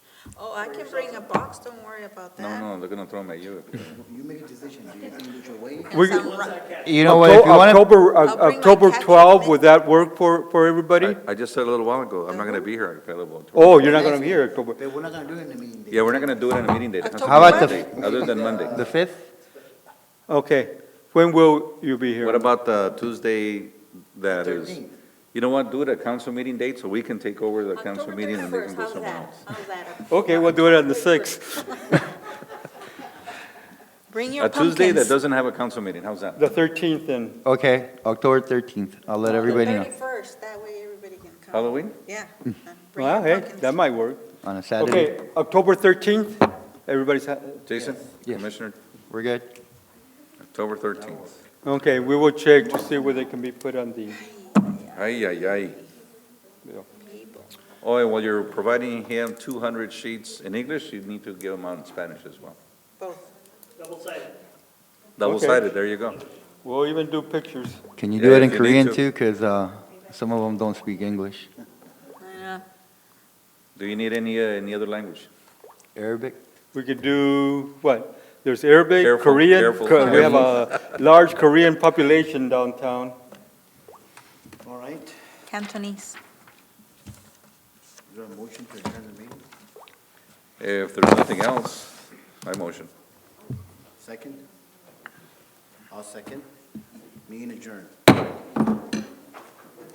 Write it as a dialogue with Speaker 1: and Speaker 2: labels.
Speaker 1: Oh, I can bring a box, don't worry about
Speaker 2: No,
Speaker 1: that.
Speaker 2: no, they're gonna throw them at you.
Speaker 3: You make a decision, do you think it's your way?
Speaker 1: And
Speaker 4: We-
Speaker 1: some ri-
Speaker 4: You know what, if you want to,
Speaker 5: October, uh,
Speaker 1: I'll bring my
Speaker 5: October
Speaker 1: catch-up
Speaker 5: 12,
Speaker 1: mix.
Speaker 5: would that work for, for everybody?
Speaker 2: I, I just said a little while ago, I'm not gonna be here available. tomorrow.
Speaker 5: Oh, you're not going to be here October.
Speaker 3: But we're not gonna do it in the meeting day.
Speaker 2: Yeah, we're not gonna do it on a meeting date. It has to
Speaker 1: How
Speaker 2: be
Speaker 4: about the-
Speaker 2: Monday, Other than Monday.
Speaker 4: the 5th?
Speaker 5: Okay. When will you be here?
Speaker 2: What about the Tuesday that is?
Speaker 3: Thirteenth.
Speaker 2: You know what, do it at council meeting date so we can take over the council
Speaker 1: October
Speaker 2: meeting and they can
Speaker 1: 31st,
Speaker 2: go
Speaker 1: how's
Speaker 2: somewhere
Speaker 1: that?
Speaker 2: else.
Speaker 1: How's that?
Speaker 5: Okay, we'll do it on the 6th,
Speaker 1: Bring your
Speaker 2: A Tuesday that
Speaker 1: pumpkins.
Speaker 2: doesn't have a council meeting, how's that?
Speaker 5: the 13th then.
Speaker 4: Okay, October 13th. I'll let everybody know,
Speaker 1: Thirty-first, that way everybody can come.
Speaker 2: Halloween?
Speaker 1: Yeah. Bring your
Speaker 5: Hmm. Well, hey,
Speaker 1: pumpkins.
Speaker 5: that might work.
Speaker 4: on a Saturday.
Speaker 5: Okay, October 13th, everybody's, ha-
Speaker 2: Jason,
Speaker 4: Yes.
Speaker 2: Commissioner,
Speaker 4: We're good?
Speaker 2: October thirteenth.
Speaker 5: okay, we will check to see where they can be put on the,
Speaker 2: Ay, ay, ay.
Speaker 1: People.
Speaker 2: Oh, and while you're providing him two hundred sheets in English, you need to give them out in Spanish as well.
Speaker 1: Both.
Speaker 2: Double-sided, there you go.
Speaker 5: we'll even do pictures.
Speaker 4: Can you
Speaker 2: Yeah,
Speaker 4: do it in
Speaker 2: if you need
Speaker 4: Korean
Speaker 2: to.
Speaker 4: too? Because some of them don't speak English.
Speaker 1: I know.
Speaker 2: Do you need any, uh, any other language?
Speaker 4: Arabic?
Speaker 5: We could do, what? There's Arabic,
Speaker 2: Careful,
Speaker 5: Korean,
Speaker 2: careful,
Speaker 5: Ko- we have
Speaker 2: careful.
Speaker 5: a large Korean population downtown.
Speaker 3: All right, is
Speaker 1: Cantonese.
Speaker 3: there a motion to adjourn the meeting?
Speaker 2: If there's nothing else, I motion.
Speaker 3: Second? I'll second. Meeting adjourned.